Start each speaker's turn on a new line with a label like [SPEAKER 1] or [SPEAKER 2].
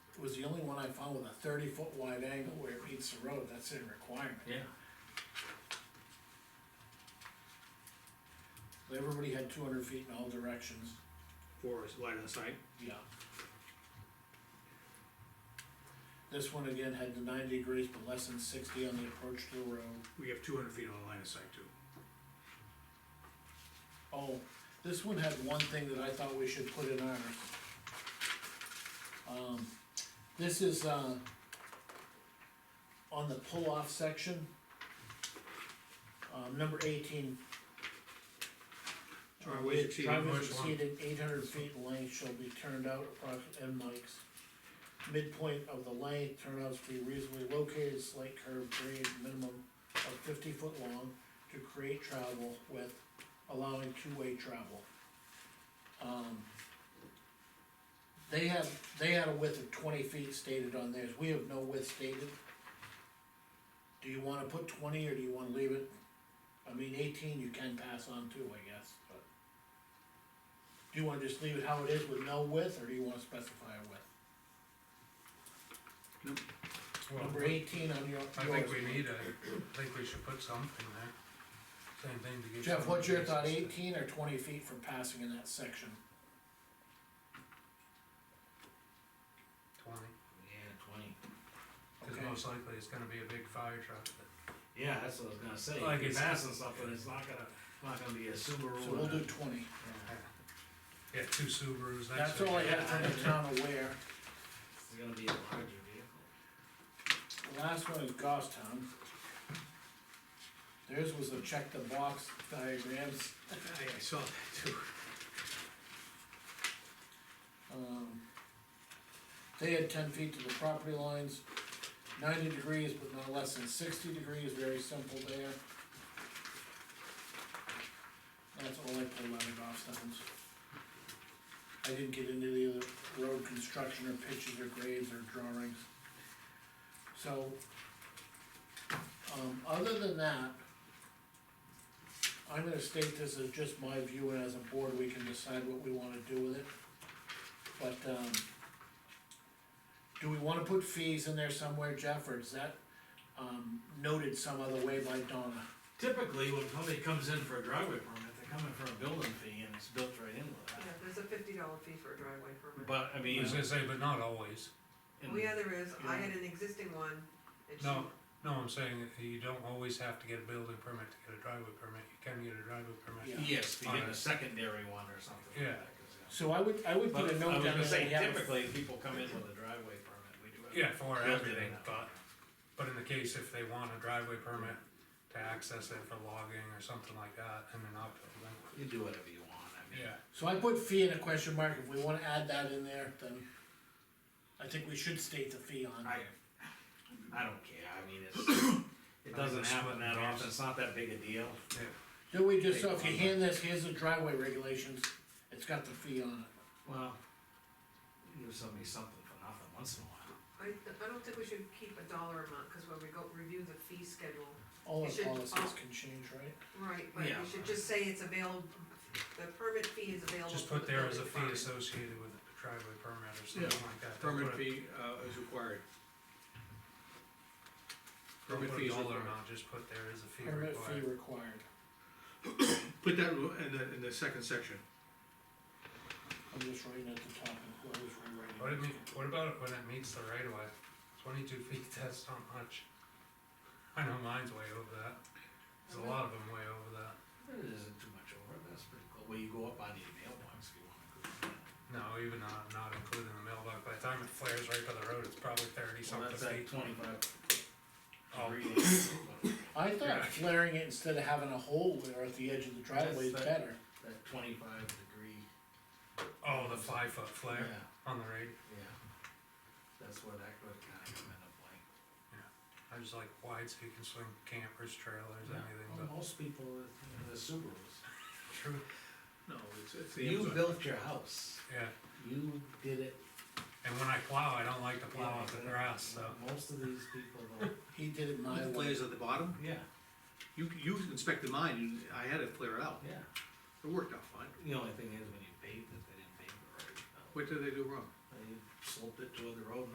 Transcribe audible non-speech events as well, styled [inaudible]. [SPEAKER 1] was the only one I found with a thirty foot wide angle where it meets the road, that's in requirement.
[SPEAKER 2] yeah,
[SPEAKER 1] Everybody had two hundred feet in all directions,
[SPEAKER 3] or is line of sight,
[SPEAKER 1] yeah. This one again had the ninety degrees, but less than sixty on the approach to the road.
[SPEAKER 3] we have two hundred feet on the line of sight too.
[SPEAKER 1] Oh, this one had one thing that I thought we should put in ours. Um, this is, uh, on the pull-off section. Um, number eighteen. Uh,
[SPEAKER 3] Driveways exceeding
[SPEAKER 1] Driveways
[SPEAKER 3] much one.
[SPEAKER 1] exceeding eight hundred feet in length shall be turned out approximately end mics. Midpoint of the length turnouts to be reasonably located, slight curve grade, minimum of fifty foot long to create travel with allowing two-way travel. Um. They had, they had a width of twenty feet stated on theirs, we have no width stated. Do you wanna put twenty or do you wanna leave it? I mean, eighteen you can pass on too, I guess, but. Do you wanna just leave it how it is with no width, or do you wanna specify a width?
[SPEAKER 2] well,
[SPEAKER 1] Number eighteen on your,
[SPEAKER 2] I think
[SPEAKER 1] yours.
[SPEAKER 2] we need a, I think we should put something there, same thing to get.
[SPEAKER 1] Jeff,
[SPEAKER 2] some
[SPEAKER 1] what's your thought,
[SPEAKER 2] basis.
[SPEAKER 1] eighteen or twenty feet for passing in that section?
[SPEAKER 2] Twenty,
[SPEAKER 4] Yeah, twenty.
[SPEAKER 2] cause
[SPEAKER 1] Okay,
[SPEAKER 2] most likely it's gonna be a big fire truck, but
[SPEAKER 4] Yeah, that's what I was gonna say.
[SPEAKER 2] Like
[SPEAKER 4] If you're
[SPEAKER 2] it's-
[SPEAKER 4] passing something, it's not gonna, not gonna be a Subaru.
[SPEAKER 1] so we'll
[SPEAKER 4] and a-
[SPEAKER 1] do twenty.
[SPEAKER 4] yeah,
[SPEAKER 2] yeah, two Subarus, that's.
[SPEAKER 1] That's all I got from the town aware.
[SPEAKER 4] It's gonna be a larger vehicle.
[SPEAKER 1] The last one is Goffstown. Theirs was a check the box diagrams,
[SPEAKER 3] I, I saw that too.
[SPEAKER 1] um. They had ten feet to the property lines, ninety degrees, but not less than sixty degrees, very simple there. That's all I pulled out of Goffstown's. I didn't get into the other road construction or pitches or grades or drawings. So, um, other than that, I'm gonna state this as just my view, and as a board, we can decide what we wanna do with it. But, um, do we wanna put fees in there somewhere, Jeff, or is that, um, noted some other way by Donna?
[SPEAKER 4] Typically, when somebody comes in for a driveway permit, they're coming for a building fee and it's built right in with
[SPEAKER 5] Yeah,
[SPEAKER 4] that.
[SPEAKER 5] there's a fifty dollar fee for a driveway permit.
[SPEAKER 4] But, I
[SPEAKER 2] I
[SPEAKER 4] mean.
[SPEAKER 2] was gonna say, but not always,
[SPEAKER 4] and-
[SPEAKER 5] Well, yeah, there is, I
[SPEAKER 1] Yeah.
[SPEAKER 5] had an existing one, and she,
[SPEAKER 2] No. no, I'm saying that you don't always have to get a building permit to get a driveway permit, you can get a driveway permit.
[SPEAKER 1] Yeah.
[SPEAKER 4] Yes, if you get
[SPEAKER 2] Yeah.
[SPEAKER 4] a secondary one or something like
[SPEAKER 2] Yeah.
[SPEAKER 4] that. 'cause, yeah.
[SPEAKER 1] So I would, I would
[SPEAKER 4] But
[SPEAKER 1] put a
[SPEAKER 4] I
[SPEAKER 1] note
[SPEAKER 4] was
[SPEAKER 1] down
[SPEAKER 4] gonna
[SPEAKER 1] there. that
[SPEAKER 4] say,
[SPEAKER 1] we have a-
[SPEAKER 4] typically, people come in with a driveway permit, we do have.
[SPEAKER 2] Yeah, for
[SPEAKER 4] built-in
[SPEAKER 2] everything,
[SPEAKER 4] now.
[SPEAKER 2] but, but in the case if they want a driveway permit to access it for logging or something like that, and an outbuilding,
[SPEAKER 4] You do whatever you want, I mean.
[SPEAKER 2] yeah.
[SPEAKER 1] So I put fee in a question mark, if we wanna add that in there, then I think we should state the fee on.
[SPEAKER 4] I, I don't care, I mean,
[SPEAKER 2] [coughs]
[SPEAKER 4] it's, it doesn't happen that often, it's not that big a deal.
[SPEAKER 1] Do we just, so if you hand this, here's the driveway regulations, it's got the fee on it.
[SPEAKER 4] Well, give somebody something for nothing once in a while.
[SPEAKER 5] I, I don't think we should keep a dollar amount, cause when we go review the fee schedule,
[SPEAKER 1] All
[SPEAKER 5] It
[SPEAKER 1] the
[SPEAKER 5] should-
[SPEAKER 1] policies
[SPEAKER 5] oh.
[SPEAKER 1] can change, right?
[SPEAKER 5] right, but
[SPEAKER 4] Yeah.
[SPEAKER 5] you should just say it's available, the permit fee is available.
[SPEAKER 2] Just
[SPEAKER 5] for
[SPEAKER 2] put
[SPEAKER 5] the
[SPEAKER 2] there as a
[SPEAKER 5] building
[SPEAKER 2] fee
[SPEAKER 5] department.
[SPEAKER 2] associated with the driveway permit or something like that. Don't
[SPEAKER 3] Permit
[SPEAKER 2] put a-
[SPEAKER 3] fee, uh, is required.
[SPEAKER 2] don't
[SPEAKER 3] Permit
[SPEAKER 2] put
[SPEAKER 3] fee
[SPEAKER 2] a
[SPEAKER 3] is
[SPEAKER 2] dollar
[SPEAKER 3] required.
[SPEAKER 2] amount, just put there is a fee
[SPEAKER 1] Permit fee
[SPEAKER 2] required.
[SPEAKER 1] required.
[SPEAKER 3] [coughs] Put that in the, in the second section.
[SPEAKER 1] I'm just writing at the top of what I was rewriting.
[SPEAKER 2] What it mean, what about it when it meets the right of way? Twenty-two [laughs] feet, that's not much. I know mine's way over that. There's a lot of them way over that.
[SPEAKER 4] It isn't too much over, that's pretty cool, well, you go up on your mailbox if you wanna. go.
[SPEAKER 2] No, even not, not including the mailbox, by the time it flares right by the road, it's probably thirty
[SPEAKER 4] Well,
[SPEAKER 2] something
[SPEAKER 4] that's like
[SPEAKER 2] feet.
[SPEAKER 4] twenty-five.
[SPEAKER 2] Oh.
[SPEAKER 4] degrees.
[SPEAKER 1] I thought
[SPEAKER 2] Yeah.
[SPEAKER 1] flaring it instead of having a hole there at the edge of the driveway is
[SPEAKER 4] That's that-
[SPEAKER 1] better.
[SPEAKER 4] That twenty-five degree,
[SPEAKER 2] Oh, the five-foot flare
[SPEAKER 4] yeah,
[SPEAKER 2] on the radio.
[SPEAKER 4] yeah, that's where that would kinda come into play.
[SPEAKER 2] I just like wide so you can swing campers, trailers,
[SPEAKER 4] Yeah.
[SPEAKER 2] anything,
[SPEAKER 4] Well,
[SPEAKER 2] but
[SPEAKER 4] Most people, with the Subarus.
[SPEAKER 2] true,
[SPEAKER 3] No, it's, it's the
[SPEAKER 4] You
[SPEAKER 3] Amazon.
[SPEAKER 4] built your house,
[SPEAKER 2] yeah.
[SPEAKER 4] you did it.
[SPEAKER 2] And when I plow, I don't like to plow up the grass, so.
[SPEAKER 4] Most of these people don't,
[SPEAKER 1] He did it my
[SPEAKER 3] The
[SPEAKER 1] way.
[SPEAKER 3] flares at the bottom,
[SPEAKER 4] yeah,
[SPEAKER 3] you, you inspected mine, and I had it flare out,
[SPEAKER 4] yeah.
[SPEAKER 3] it worked out fine.
[SPEAKER 4] The only thing is, when you paved it, they didn't pave it right.
[SPEAKER 3] What did they do wrong?
[SPEAKER 4] They sloped it toward the road